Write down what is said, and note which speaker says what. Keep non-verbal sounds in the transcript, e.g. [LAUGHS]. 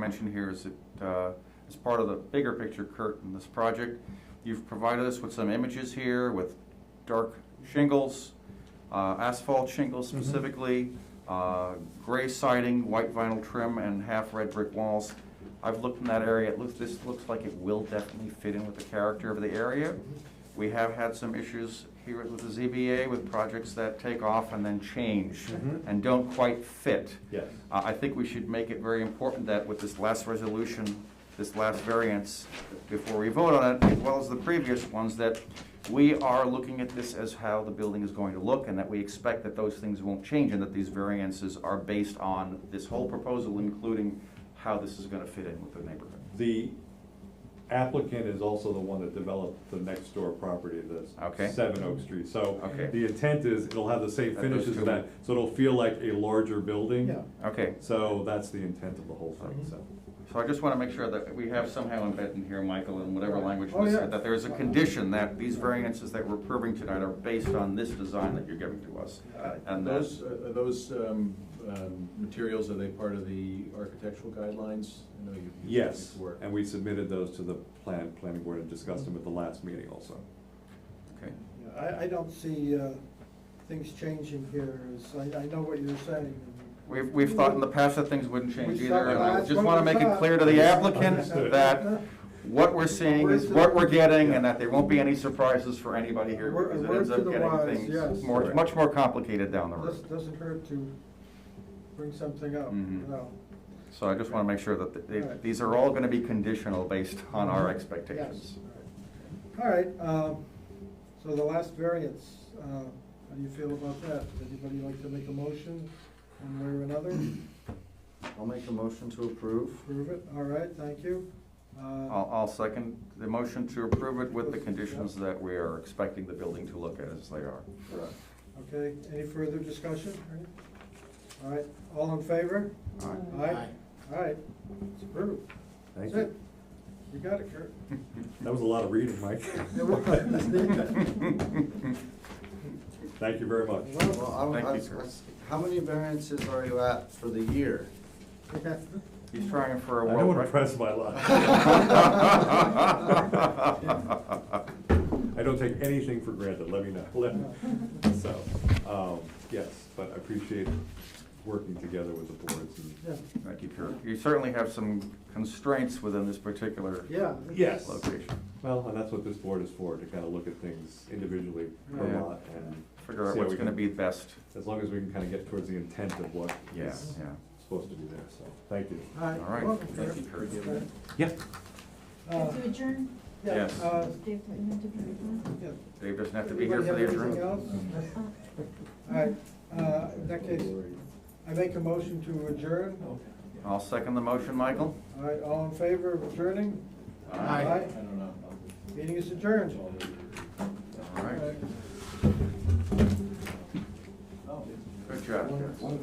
Speaker 1: mention here is that, uh, as part of the bigger picture, Kurt, in this project, you've provided us with some images here with dark shingles, uh, asphalt shingles
Speaker 2: Mhm.
Speaker 1: specifically, uh, gray siding, white vinyl trim, and half red brick walls. I've looked in that area, it looks, this looks like it will definitely fit in with the character of the area. We have had some issues here with the ZBA with projects that take off and then change
Speaker 2: Mhm.
Speaker 1: and don't quite fit.
Speaker 2: Yes.
Speaker 1: Uh, I think we should make it very important that with this last resolution, this last variance, before we vote on it, as well as the previous ones, that we are looking at this as how the building is going to look, and that we expect that those things won't change, and that these variances are based on this whole proposal, including how this is gonna fit in with the neighborhood.
Speaker 2: The applicant is also the one that developed the next door property,
Speaker 1: Okay.
Speaker 2: that's seven Oak Street. So
Speaker 1: Okay.
Speaker 2: the intent is it'll have the same
Speaker 1: That those
Speaker 2: finishes
Speaker 1: two-
Speaker 2: as that, so it'll feel like a larger building.
Speaker 3: Yeah. Mm-hmm.
Speaker 1: Okay,
Speaker 2: So that's the intent of the whole thing, so.
Speaker 1: so I just wanna make sure that we have somehow embedded in here, Michael, in whatever language
Speaker 3: Oh,
Speaker 1: was
Speaker 3: yeah.
Speaker 1: said, that there is a condition that these variances that we're approving tonight are based on this design that you're giving to us.
Speaker 4: Are
Speaker 1: And uh, that-
Speaker 4: Those, are those um, um, materials, are they part of the architectural guidelines? I know you've used them
Speaker 2: Yes,
Speaker 4: before.
Speaker 2: and we submitted those to the plan, planning board and discussed them at the last meeting also.
Speaker 1: Okay.
Speaker 3: Yeah, I, I don't see, uh, things changing here, as, I, I know what you're saying.
Speaker 1: We've, we've thought in the past that things wouldn't change
Speaker 3: We
Speaker 1: either, and
Speaker 3: thought
Speaker 1: I
Speaker 3: that's
Speaker 1: just
Speaker 3: what
Speaker 1: wanna
Speaker 3: we
Speaker 1: make it
Speaker 3: thought.
Speaker 1: clear to the applicant
Speaker 2: Understood.
Speaker 1: that what we're seeing is what we're getting, and that there won't be any surprises for anybody here,
Speaker 3: Word-
Speaker 1: because it
Speaker 3: word
Speaker 1: ends
Speaker 3: to
Speaker 1: up
Speaker 3: the wise,
Speaker 1: getting things
Speaker 3: yes.
Speaker 1: more, much more complicated down the
Speaker 3: This
Speaker 1: road.
Speaker 3: doesn't hurt to bring something up,
Speaker 1: Mhm.
Speaker 3: you know.
Speaker 1: So I just wanna make sure that th- they-
Speaker 3: Right. Mm-hmm.
Speaker 1: these are all gonna be conditional based on our
Speaker 3: Yes.
Speaker 1: expectations.
Speaker 3: All right, um, so the last variance, uh, how do you feel about that? Anybody like to make a motion, one way or another?
Speaker 1: I'll make a motion to approve.
Speaker 3: Approve it, all right, thank you. Uh,
Speaker 1: I'll, I'll second the motion to approve it with the conditions that we are expecting the building to look at as they are.
Speaker 4: Correct.
Speaker 3: Okay, any further discussion? All right, all in favor?
Speaker 1: All [LAUGHS] right.
Speaker 3: Aye. All right, it's approved.
Speaker 2: Thank
Speaker 3: That's
Speaker 2: you.
Speaker 3: it. You got it, Kurt.
Speaker 2: That was a lot of reading, Mike.
Speaker 3: [LAUGHS] It was.
Speaker 2: [LAUGHS] Thank you very much.
Speaker 5: Well, I
Speaker 1: Thank you,
Speaker 5: was, I
Speaker 1: sir.
Speaker 5: was, how many variances are you at for the year?
Speaker 1: He's trying for
Speaker 2: I
Speaker 1: a
Speaker 2: don't
Speaker 1: world
Speaker 2: want to
Speaker 1: record.
Speaker 2: press my luck.
Speaker 1: [LAUGHS]
Speaker 3: [LAUGHS]
Speaker 1: Thank
Speaker 2: I don't take anything for granted, let me know, let me, so, um, yes, but I appreciate working together with the boards
Speaker 3: Yeah,
Speaker 2: and.
Speaker 1: you, Kurt. You certainly have some constraints within this particular
Speaker 3: Yeah.
Speaker 2: Yes.
Speaker 1: location.
Speaker 2: Well, and that's what this board is for, to kind of look at things individually per
Speaker 1: Yeah.
Speaker 2: lot and.
Speaker 1: Figure out
Speaker 2: see how
Speaker 1: what's
Speaker 2: we
Speaker 1: gonna
Speaker 2: can-
Speaker 1: be best.
Speaker 2: As long as we can kind of get towards the intent of what
Speaker 1: Yeah,
Speaker 2: is
Speaker 1: yeah.
Speaker 2: supposed to be there, so, thank you.
Speaker 3: All
Speaker 1: All right.
Speaker 3: welcome,
Speaker 1: Thank you,
Speaker 3: Kurt.
Speaker 1: Kurt.
Speaker 3: Okay.
Speaker 2: Yeah.
Speaker 6: Do you
Speaker 3: Uh,
Speaker 6: have to adjourn?
Speaker 3: yeah,
Speaker 1: Yes.
Speaker 3: uh,
Speaker 6: Do you have to- you have to adjourn?
Speaker 3: yeah.
Speaker 1: Dave doesn't have to be here for
Speaker 3: Anybody
Speaker 1: the
Speaker 3: have anything
Speaker 1: adjournment.
Speaker 3: else? All right, uh, in that case, I make a motion to adjourn.
Speaker 1: I'll second the motion, Michael.
Speaker 3: All right, all in favor of adjourning?
Speaker 1: Aye.
Speaker 4: I don't know.
Speaker 3: Meeting is adjourned.
Speaker 4: I'll-
Speaker 1: All right.
Speaker 3: All right.
Speaker 4: Oh,
Speaker 1: Good job, guys.